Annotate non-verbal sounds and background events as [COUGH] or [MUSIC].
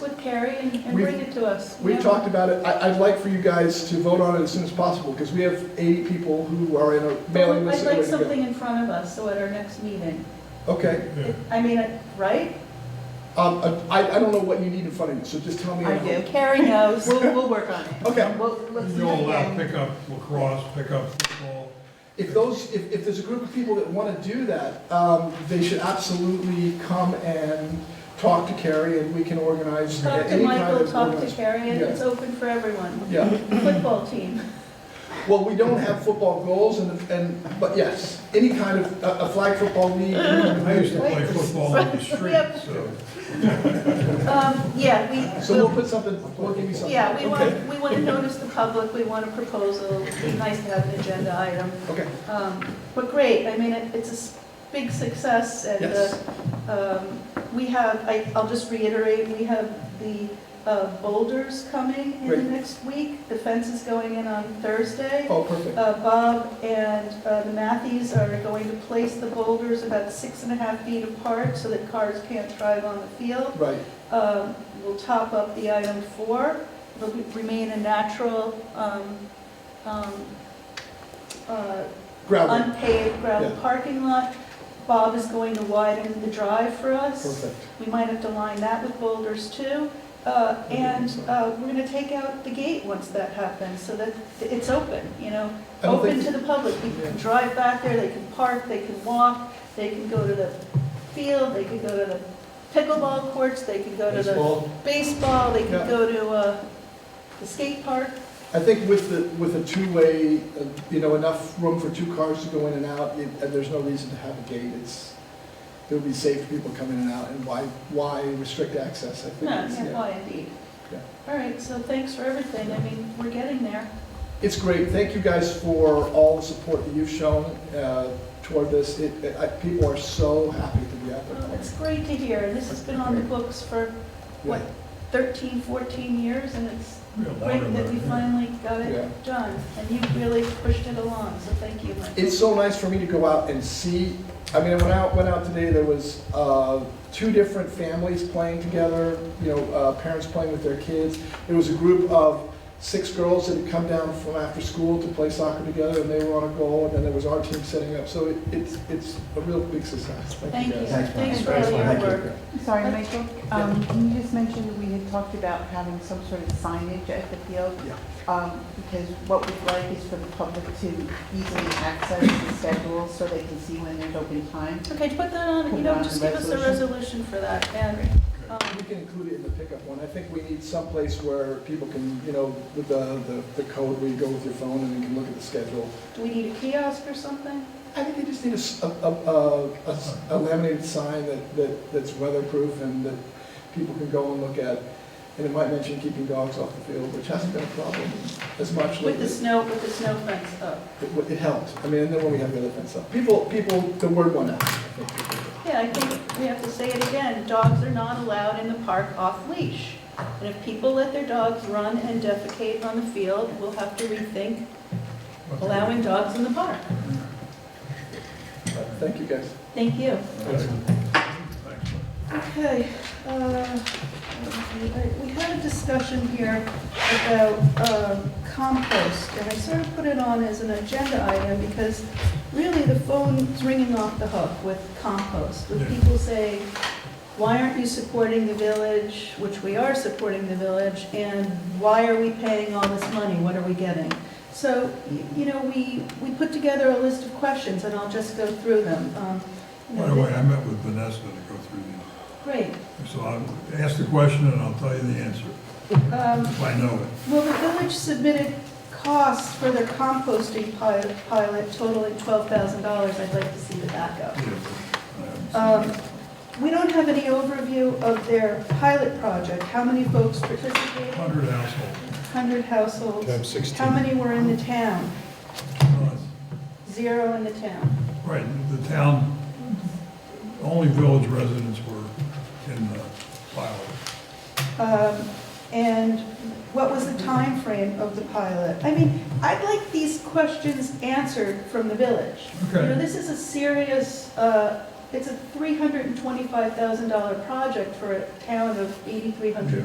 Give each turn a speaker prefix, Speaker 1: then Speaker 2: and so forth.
Speaker 1: with Carrie and and
Speaker 2: We've-
Speaker 1: bring it to us.
Speaker 2: We've
Speaker 1: Yeah.
Speaker 2: talked about it, I, I'd like for you guys to vote on it as soon as possible, because we have eighty people who are in a mailing list.
Speaker 1: I'd
Speaker 2: that
Speaker 1: like
Speaker 2: are ready to go.
Speaker 1: something in front of us, so at our next meeting.
Speaker 2: Okay,
Speaker 3: Yeah.
Speaker 1: I mean, uh, right?
Speaker 2: um, I, I don't know what you need in front of you, so just tell me.
Speaker 1: I do. Carrie knows. We'll, we'll work on it.
Speaker 2: Okay.
Speaker 1: We'll, let's
Speaker 3: You'll uh,
Speaker 1: meet
Speaker 3: allow
Speaker 1: again.
Speaker 3: pickup lacrosse, pickup football.
Speaker 2: If those, if, if there's a group of people that wanna do that, um, they should absolutely come and talk to Carrie, and we can organize
Speaker 1: Talk to
Speaker 2: any kind
Speaker 1: Michael,
Speaker 2: of.
Speaker 1: talk to
Speaker 2: organized-
Speaker 1: Carrie, and
Speaker 2: Yeah.
Speaker 1: it's open for everyone.
Speaker 2: Yeah,
Speaker 1: Football team.
Speaker 2: well, we don't have football goals, and, and, but yes, any kind of, a, a flag football
Speaker 1: [LAUGHS]
Speaker 2: league.
Speaker 3: I used to play
Speaker 1: Wait. [LAUGHS]
Speaker 3: football on the street,
Speaker 1: Yep.
Speaker 3: so.
Speaker 1: Um, yeah, we.
Speaker 2: So we'll put something, we'll give you something.
Speaker 1: Yeah, we
Speaker 2: Okay.
Speaker 1: want, we want to notice the public, we want a proposal, it'd be nice to have an agenda item.
Speaker 2: Okay,
Speaker 1: Um, But great, I mean, it- it's a s- big success, and
Speaker 2: Yes.
Speaker 1: uh, um, we have, I- I'll just reiterate, we have the uh, boulders coming in the
Speaker 2: Great.
Speaker 1: next week, the fence is going in on Thursday.
Speaker 2: oh, perfect,
Speaker 1: Uh, Bob and uh, the Matthews are going to place the boulders about six and a half feet apart so that cars can't drive on the field.
Speaker 2: right,
Speaker 1: Um, We'll top up the item four, it'll be- remain a natural, um, um, uh,
Speaker 2: gravel,
Speaker 1: unpaved gravel
Speaker 2: Yeah.
Speaker 1: parking lot. Bob is going to widen the drive for us.
Speaker 2: perfect.
Speaker 1: We might have to line that with boulders too. Uh, And uh, we're going to take out the gate once that happens, so that it's open, you know?
Speaker 2: I don't
Speaker 1: Open
Speaker 2: think-
Speaker 1: to the public. People can drive back there, they can park, they can walk, they can go to the field, they can go to the pickleball courts, they can go to the
Speaker 2: Baseball.
Speaker 1: baseball, they
Speaker 2: Yeah.
Speaker 1: can go to uh, the skate park.
Speaker 2: I think with the, with a two-way, uh, you know, enough room for two cars to go in and out, it- uh, there's no reason to have a gate, it's, it'll be safe for people coming in and out, and why, why restrict access, I think.
Speaker 1: No,
Speaker 2: it's-
Speaker 1: yeah,
Speaker 2: yeah.
Speaker 1: why indeed.
Speaker 2: Yeah.
Speaker 1: All right, so thanks for everything. I mean, we're getting there.
Speaker 2: It's great, thank you guys for all the support that you've shown uh, toward this, it, it- I- people are so happy to be out
Speaker 1: Well,
Speaker 2: there.
Speaker 1: Oh, It's great to hear, and this has been on the books for, what, 13, 14 years, and it's
Speaker 3: Yeah,
Speaker 1: great
Speaker 3: longer
Speaker 1: that we
Speaker 3: than-
Speaker 1: finally got
Speaker 2: Yeah.
Speaker 1: it done. And you really pushed it along, so thank you, Mike.
Speaker 2: It's so nice for me to go out and see, I mean, I went out, went out today, there was uh, two different families playing together, you know, uh, parents playing with their kids. There was a group of six girls that had come down from after school to play soccer together, and they were on a goal, and then there was our team setting up, so it- it's, it's a real big success.
Speaker 1: Thank you,
Speaker 2: guys.
Speaker 1: thanks for all your
Speaker 4: Thank you.
Speaker 1: work.
Speaker 5: Sorry, Michael, um, you just mentioned we had talked about having some sort of signage at the field.
Speaker 2: Yeah.
Speaker 5: Um, because what we'd like is for the public to easily access the schedule so they can see when there's open time.
Speaker 1: Okay, put that on, you know, just give us a resolution for that, and, um,
Speaker 2: We can include it in the pickup one, I think we need someplace where people can, you know, with the, the- the code, where you go with your phone and you can look at the schedule.
Speaker 1: do we need a kiosk or something?
Speaker 2: I think they just need a s- a, a- a- a s- a laminated sign that, that, that's weatherproof and that people can go and look at. And it might mention keeping dogs off the field, which hasn't been a problem as much
Speaker 1: With
Speaker 2: lately.
Speaker 1: the snow, with the snow fence up.
Speaker 2: It, w- it helped. I mean, and then when we have the other fence up, people, people, the word went out. I think.
Speaker 1: Yeah, I think we have to say it again, dogs are not allowed in the park off-leash. And if people let their dogs run and defecate on the field, we'll have to rethink allowing dogs in the park.
Speaker 2: But Thank you, guys.
Speaker 1: Thank you.
Speaker 3: Thanks.
Speaker 1: Okay, uh, we had a discussion here about um, compost, and I sort of put it on as an agenda item because really the phone's ringing off the hook with compost, with
Speaker 3: Yeah.
Speaker 1: people saying, why aren't you supporting the village, which we are supporting the village, and why are we paying all this money, what are we getting? So, y- you know, we, we put together a list of questions, and I'll just go through them. Um, you know,
Speaker 3: By the way, I met with Vanessa to go through
Speaker 1: Great.
Speaker 3: these. So I'll ask the question and I'll tell you the answer,
Speaker 1: Um,
Speaker 3: if I know it.
Speaker 1: Well, the village submitted costs for their composting pilot pilot totaling $12,000. I'd like to see the backup.
Speaker 3: Yeah.
Speaker 1: Um, We don't have any overview of their pilot project. How many folks participated?
Speaker 3: Hundred households.
Speaker 1: 100 households. How many were in the town?
Speaker 3: Uh,
Speaker 1: Zero in the town.
Speaker 3: Right, the town, only village residents were in uh, the pilot.
Speaker 1: Um, And what was the time frame of the pilot? I mean, I'd like these questions answered from the village. You know,
Speaker 3: Okay.
Speaker 1: this is a serious, uh, it's a $325,000 project for a town of 8,300